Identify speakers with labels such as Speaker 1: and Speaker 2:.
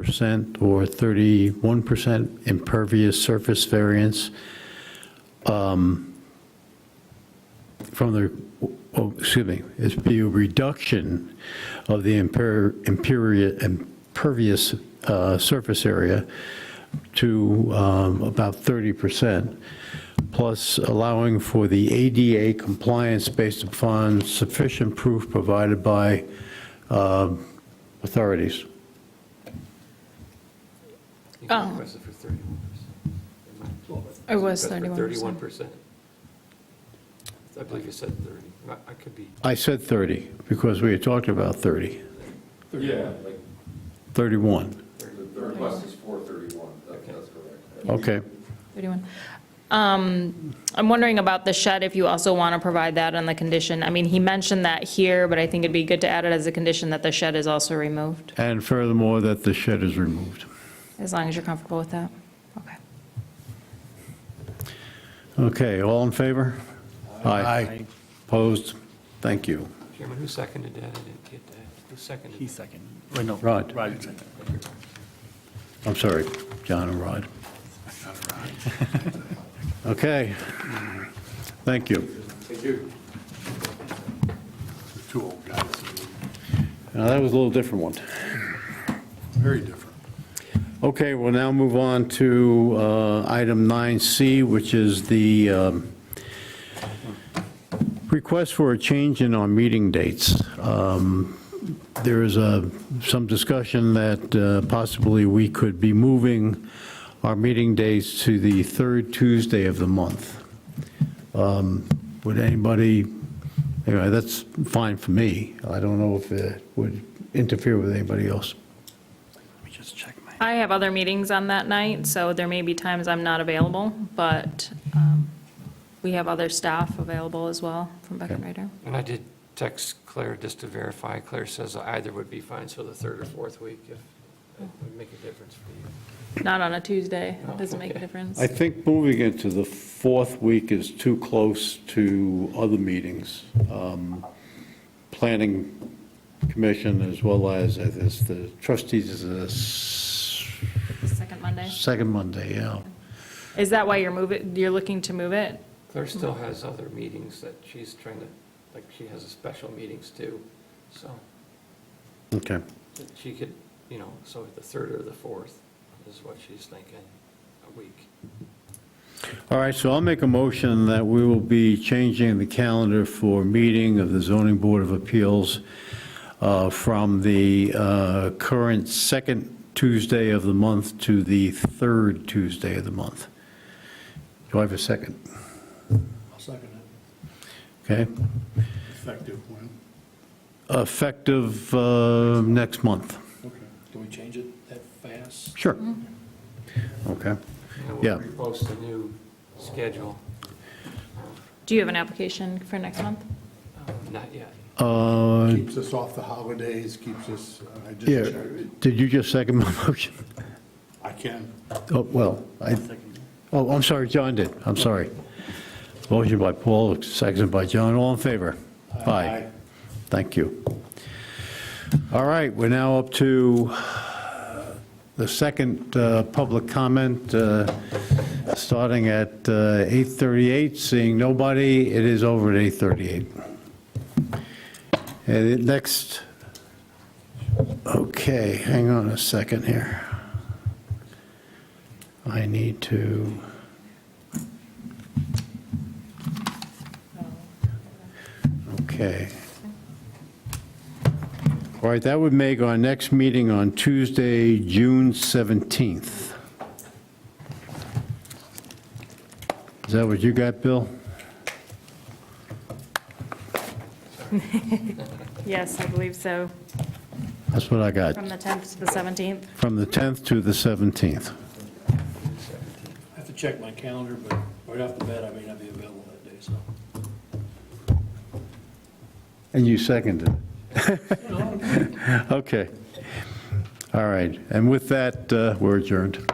Speaker 1: percent or 31% impervious surface variance um, from the, oh, excuse me, it'd be a reduction of the imper- imperia- impervious uh, surface area to um, about 30%, plus allowing for the ADA compliance based upon sufficient proof provided by um, authorities.
Speaker 2: You
Speaker 3: Oh.
Speaker 2: requested for 31%.
Speaker 3: It was
Speaker 2: Thirty-one
Speaker 3: 31%.
Speaker 2: percent. I believe you said thirty. I- I could be,
Speaker 1: I said 30, because we had talked about 30,
Speaker 4: Yeah, like,
Speaker 1: 31,
Speaker 4: the the request is four thirty-one, that, that's correct.
Speaker 1: okay.
Speaker 3: 31. Um, I'm wondering about the shed, if you also want to provide that on the condition. I mean, he mentioned that here, but I think it'd be good to add it as a condition that the shed is also removed,
Speaker 1: And furthermore, that the shed is removed.
Speaker 3: as long as you're comfortable with that. Okay.
Speaker 1: Okay, all in favor? Aye. Opposed? Thank you.
Speaker 2: Chairman, who seconded that? I didn't get that. Who seconded?
Speaker 5: He
Speaker 2: that?
Speaker 5: second. Or no.
Speaker 1: Rod.
Speaker 5: Roger second.
Speaker 1: I'm sorry, John and Rod. Okay, thank you.
Speaker 4: Thank you.
Speaker 6: Two old guys,
Speaker 1: Now, that was a little different one.
Speaker 6: very different.
Speaker 1: Okay, we'll now move on to uh, item 9C, which is the um, request for a change in our meeting dates. Um, There is a- some discussion that uh, possibly we could be moving our meeting dates to the third Tuesday of the month. Um, Would anybody, anyway, that's fine for me. I don't know if it would interfere with anybody else.
Speaker 5: Let me just check my.
Speaker 3: I have other meetings on that night, so there may be times I'm not available, but um, we have other staff available as well from Beck and Ryder.
Speaker 2: And I did text Claire just to verify. Claire says either would be fine, so the third or fourth week, if it would make a difference for you.
Speaker 3: Not on a Tuesday, doesn't make a
Speaker 2: Okay.
Speaker 3: difference.
Speaker 1: I think moving it to the fourth week is too close to other meetings. Um, Planning Commission as well as, uh, this the trustees is the s-
Speaker 3: Second Monday.
Speaker 1: second Monday, yeah.
Speaker 3: Is that why you're moving, you're looking to move it?
Speaker 2: Claire still has other meetings that she's trying to, like, she has a special meetings too, so
Speaker 1: Okay,
Speaker 2: she could, you know, so the third or the fourth is what she's thinking, a week.
Speaker 1: all right, so I'll make a motion that we will be changing the calendar for meeting of the Zoning Board of Appeals uh, from the uh, current second Tuesday of the month to the third Tuesday of the month. Do I have a second?
Speaker 6: I'll second it.
Speaker 1: Okay,
Speaker 6: Effective when?
Speaker 1: effective uh, next month.
Speaker 6: Okay. Do we change it that fast?
Speaker 1: Sure. Mm-hmm. Okay.
Speaker 2: And
Speaker 1: Yeah.
Speaker 2: we'll repost the new schedule.
Speaker 3: Do you have an application for next month?
Speaker 2: Uh, Not yet.
Speaker 1: Uh,
Speaker 6: Keeps us off the holidays, keeps us, uh, I
Speaker 1: Yeah,
Speaker 6: just,
Speaker 1: did you just second my motion?
Speaker 6: I can.
Speaker 1: Oh, well, I, oh, I'm sorry, John did, I'm sorry. Motion by Paul, seconded by John, all in favor? Aye. Thank you. All right, we're now up to uh, the second uh, public comment, uh, starting at uh, 8:38. Seeing nobody, it is over at 8:38. And it- next, okay, hang on a second here. I need to, okay. All right, that would make our next meeting on Tuesday, June 17th. Is that what you got, Bill?
Speaker 3: Yes, I believe so.
Speaker 1: That's what I got,
Speaker 3: From the 10th to the 17th?
Speaker 1: from the 10th to the 17th.
Speaker 7: I have to check my calendar, but right off the bat, I may not be available that day, so.
Speaker 1: And you seconded it. Okay. All right, and with that, uh, we're adjourned.